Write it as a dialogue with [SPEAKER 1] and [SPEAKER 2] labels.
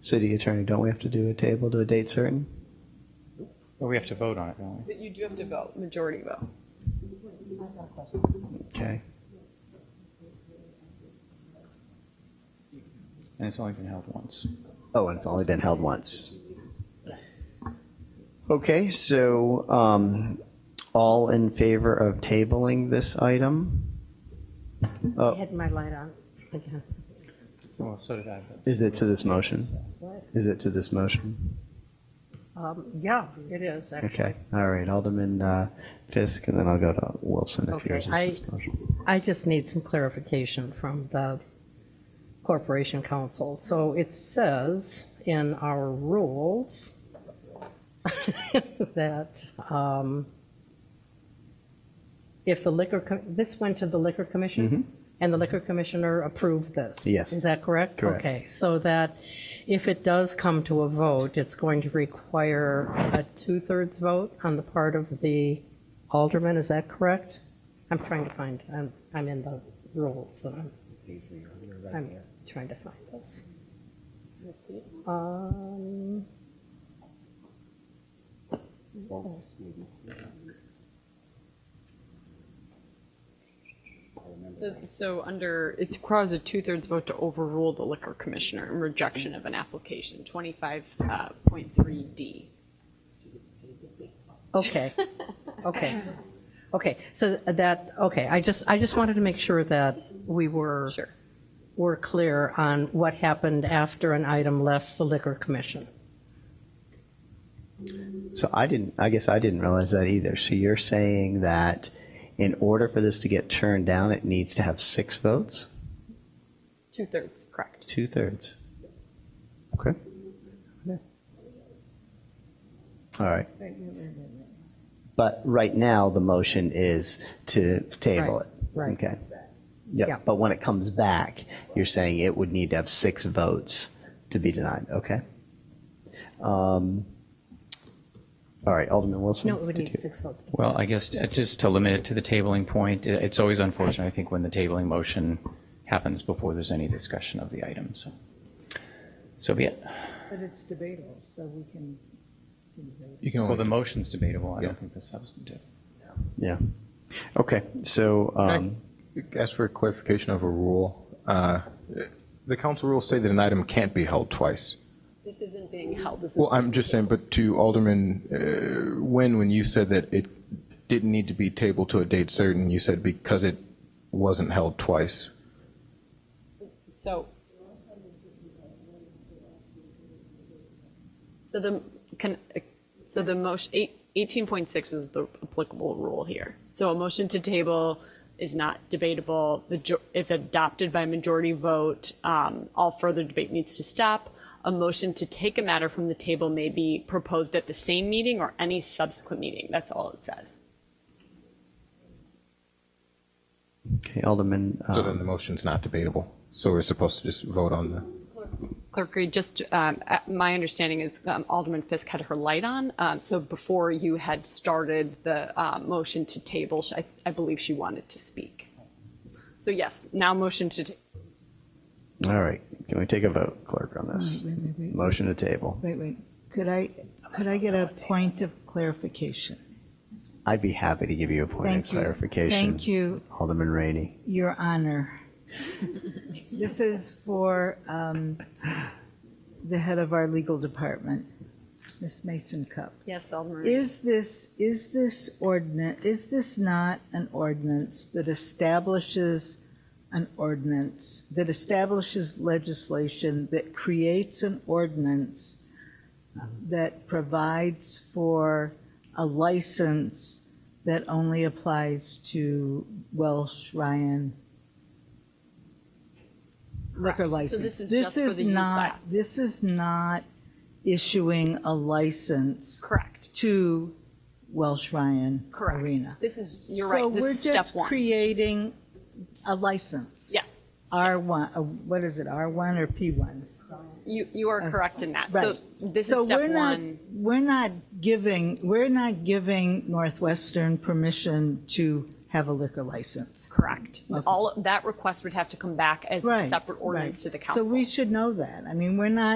[SPEAKER 1] city attorney, don't we have to do a table to a date certain?
[SPEAKER 2] Well, we have to vote on it, don't we?
[SPEAKER 3] But you do have to vote, majority vote.
[SPEAKER 1] Okay.
[SPEAKER 2] And it's only been held once.
[SPEAKER 1] Oh, and it's only been held once. Okay, so um, all in favor of tabling this item? Uh, Oh,
[SPEAKER 4] I had my light on again.
[SPEAKER 2] Well, so did I, but
[SPEAKER 1] Is it to this motion?
[SPEAKER 4] What?
[SPEAKER 1] Is it to this motion?
[SPEAKER 4] Um, Yeah, it is, actually.
[SPEAKER 1] Okay, all right, Alderman uh, Fisk, and then I'll go to Wilson if
[SPEAKER 4] Okay,
[SPEAKER 1] yours is
[SPEAKER 4] I-
[SPEAKER 1] this motion.
[SPEAKER 4] I just need some clarification from the Corporation Council. So it says in our rules that um, if the liquor, co- this went to the Liquor Commission? And the Liquor Commissioner approved this?
[SPEAKER 1] Mm-hmm. Yes.
[SPEAKER 4] Is that correct?
[SPEAKER 1] Correct.
[SPEAKER 4] Okay, so that if it does come to a vote, it's going to require a two-thirds vote on the part of the alderman, is that correct? I'm trying to find, I'm, I'm in the rules, and I'm, I'm trying to find this. Um,
[SPEAKER 3] So, so under, it requires a two-thirds vote to overrule the liquor commissioner in rejection of an application, uh, 25.3D.
[SPEAKER 4] Okay, okay, okay, so that, okay, I just, I just wanted to make sure that we were.
[SPEAKER 3] Sure.
[SPEAKER 4] Were clear on what happened after an item left the liquor commission.
[SPEAKER 1] So I didn't, I guess I didn't realize that either. So you're saying that in order for this to get turned down, it needs to have six votes?
[SPEAKER 3] Two-thirds, correct.
[SPEAKER 1] Two-thirds. Okay. All right. But right now, the motion is to table it.
[SPEAKER 4] Right, right.
[SPEAKER 1] Okay.
[SPEAKER 4] Yeah.
[SPEAKER 1] Yeah, but when it comes back, you're saying it would need to have six votes to be denied, okay? Um, All right, Alderman Wilson?
[SPEAKER 4] No, it would
[SPEAKER 1] did
[SPEAKER 4] need
[SPEAKER 1] you-
[SPEAKER 4] six votes.
[SPEAKER 2] Well, I guess uh, just to limit it to the tabling point, i- it's always unfortunate, I think, when the tabling motion happens before there's any discussion of the item, so. So be it.
[SPEAKER 5] But it's debatable, so we can, can debate.
[SPEAKER 6] You can
[SPEAKER 2] Well, the
[SPEAKER 6] only,
[SPEAKER 2] motion's debatable, I
[SPEAKER 6] Yeah.
[SPEAKER 2] don't think the substantive.
[SPEAKER 1] Yeah. Okay, so, um,
[SPEAKER 6] ask for clarification of a rule. Uh, The council rules say that an item can't be held twice.
[SPEAKER 3] This isn't being held, this is.
[SPEAKER 6] Well, I'm just saying, but to Alderman uh, Nguyen, when you said that it didn't need to be tabled to a date certain, you said because it wasn't held twice.
[SPEAKER 3] So. So the, can, so the motion, eight- 18.6 is the applicable rule here. So a motion to table is not debatable. The jo- If adopted by majority vote, um, all further debate needs to stop. A motion to take a matter from the table may be proposed at the same meeting or any subsequent meeting. That's all it says.
[SPEAKER 1] okay, Alderman,
[SPEAKER 6] So
[SPEAKER 1] um,
[SPEAKER 6] then the motion's not debatable. So we're supposed to just vote on the.
[SPEAKER 3] Clerk Reed, just, um, uh, my understanding is um, Alderman Fisk had her light on, um, so before you had started the uh, motion to table, sh- I- I believe she wanted to speak. So yes, now motion to, ta-
[SPEAKER 1] all right, can we take a vote, clerk, on this?
[SPEAKER 5] Wait, wait,
[SPEAKER 4] Mm-hmm.
[SPEAKER 5] wait.
[SPEAKER 1] Motion to table.
[SPEAKER 5] Wait, wait, could I, could I get a point of clarification?
[SPEAKER 1] I'd be happy to give you a point of
[SPEAKER 5] Thank you.
[SPEAKER 1] clarification.
[SPEAKER 5] Thank you,
[SPEAKER 1] Alderman Rainey.
[SPEAKER 5] Your Honor. This is for um, the head of our legal department, Ms. Mason Cup.
[SPEAKER 3] yes, Alderman.
[SPEAKER 5] Is this, is this ordinance, is this not an ordinance that establishes an ordinance, that establishes legislation that creates an ordinance that provides for a license that only applies to Welsh Ryan
[SPEAKER 3] Correct.
[SPEAKER 5] liquor
[SPEAKER 3] So
[SPEAKER 5] license?
[SPEAKER 3] this is just for
[SPEAKER 5] is
[SPEAKER 3] the youth
[SPEAKER 5] not-
[SPEAKER 3] class.
[SPEAKER 5] This is not issuing a license
[SPEAKER 3] Correct,
[SPEAKER 5] to Welsh Ryan
[SPEAKER 3] correct.
[SPEAKER 5] Arena.
[SPEAKER 3] This is, you're right, this is
[SPEAKER 5] So
[SPEAKER 3] step
[SPEAKER 5] we're just
[SPEAKER 3] one.
[SPEAKER 5] creating a license.
[SPEAKER 3] Yes,
[SPEAKER 5] R1, uh, what is it, R1 or P1?
[SPEAKER 3] you, you are correct in that. So
[SPEAKER 5] Right.
[SPEAKER 3] this
[SPEAKER 5] So
[SPEAKER 3] is
[SPEAKER 5] we're
[SPEAKER 3] step
[SPEAKER 5] not,
[SPEAKER 3] one.
[SPEAKER 5] we're not giving, we're not giving Northwestern permission to have a liquor license.
[SPEAKER 3] Correct. All, that request would have to come back as a
[SPEAKER 5] Right,
[SPEAKER 3] separate ordinance
[SPEAKER 5] right.
[SPEAKER 3] to the council.
[SPEAKER 5] So we should know that. I mean, we're not